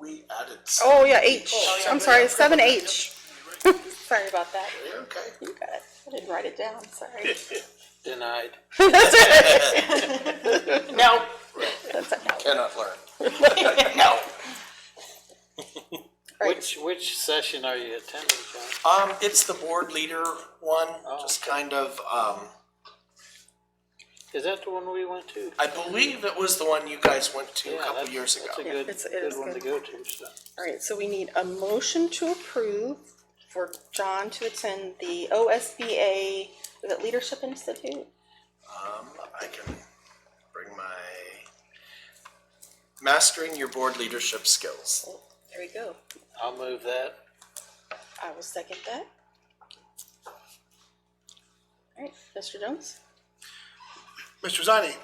I did. Oh, yeah, H. I'm sorry, seven H. Sorry about that. Okay. You got it. I didn't write it down, sorry. Denied. No. Cannot learn. No. Which, which session are you attending, John? Um, it's the board leader one, Oh, just kind of, um, Is that the one we went to? I believe it was the one you guys went to Yeah, a couple that's- years ago. That's a Yeah, good, it's- it is good one to good. go to, so. All right, so we need a motion to approve for John to attend the OSBA, is it Leadership Institute? Um, I can bring my mastering your board leadership skills. Oh, There we go. I'll move that. I will second that. All right, Mr. Jones? Mr. Zani,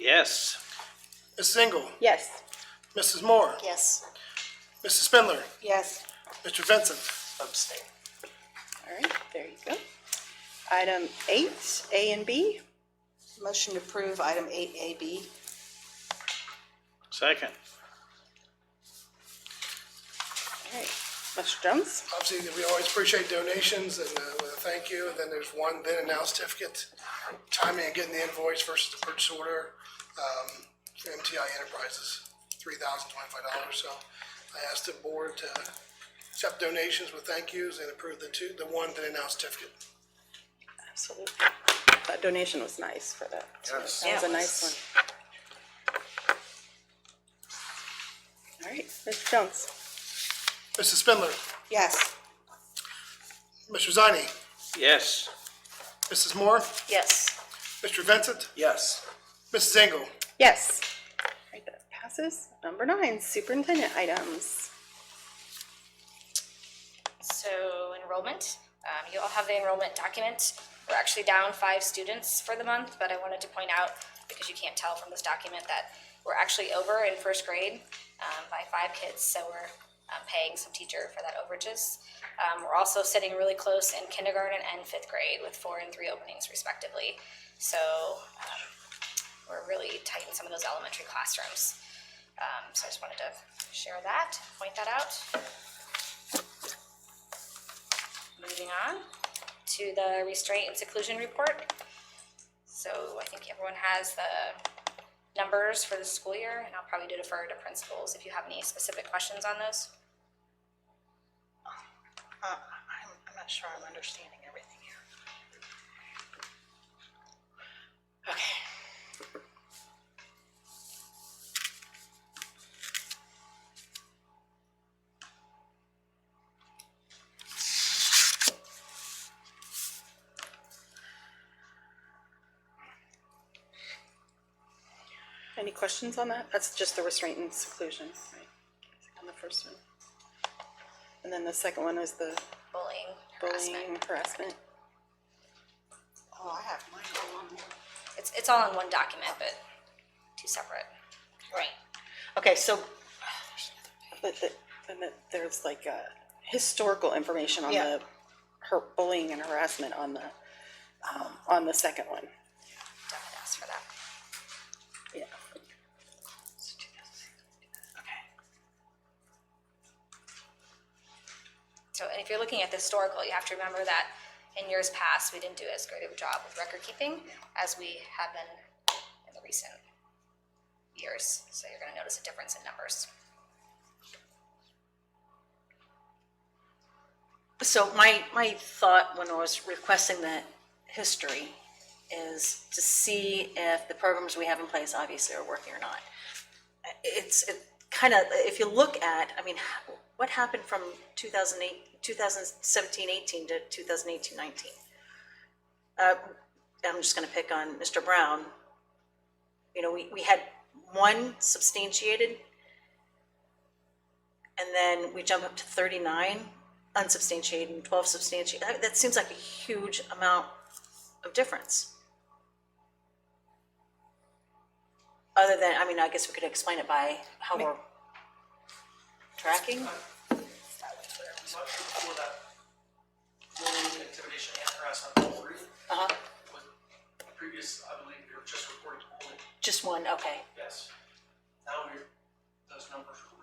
Yes. Mrs. Engel, Yes. Mrs. Moore, Yes. Mrs. Spindler, Yes. Mr. Vincent. Abstain. All right, there you go. Item eight, A and B. Motion to approve item eight A B. Second. All right, Mr. Jones? Obviously, we always appreciate donations and uh, with a thank you. And then there's one then and now certificate, timing and getting the invoice versus the purchase order um, for MTI Enterprises, three thousand twenty-five dollars. So I asked the board to accept donations with thank yous and approve the two, the one then and now certificate. Absolutely. That donation was nice for that. Yes. That was a nice one. All right, Mr. Jones? Mrs. Spindler, Yes. Mr. Zani, Yes. Mrs. Moore, Yes. Mr. Vincent, Yes. Mrs. Engel. Yes. All right, that passes. Number nine, superintendent items. So enrollment, um, you all have the enrollment document. We're actually down five students for the month, but I wanted to point out, because you can't tell from this document, that we're actually over in first grade, um, by five kids, so we're, um, paying some teacher for that overages. Um, we're also sitting really close in kindergarten and fifth grade with four and three openings respectively. So, um, we're really tight in some of those elementary classrooms. Um, so I just wanted to share that, point that out. Moving on to the restraint and seclusion report. So I think everyone has the numbers for the school year, and I'll probably defer to principals if you have any specific questions on those. Uh, I'm, I'm not sure I'm understanding everything here. Okay. Any questions on that? That's just the restraint and seclusion, right? On the first one. And then the second one is the Bullying, harassment. bullying harassment. Oh, I have mine all on one. It's, it's all in one document, but two separate. Right. Okay, so, But the, and that there's like a historical information on Yeah. the her bullying and harassment on the, um, on the second one. Definitely ask for that. Yeah. So, and if you're looking at the historical, you have to remember that in years past, we didn't do as great of a job with record keeping as we have been in the recent years. So you're gonna notice a difference in numbers. So my, my thought when I was requesting that history is to see if the programs we have in place obviously are working or not. It's, it kind of, if you look at, I mean, what happened from 2008, 2017, 18 to 2018, 19? Uh, I'm just gonna pick on Mr. Brown. You know, we, we had one substantiated and then we jump up to thirty-nine unsubstantiated and twelve substantiated. That, that seems like a huge amount of difference. Other than, I mean, I guess we could explain it by how we're tracking. bullying, intimidation, and harassment, all three. Uh-huh, With the previous, I believe, you were just reporting bullying, just one, okay. yes. Now we're, those numbers are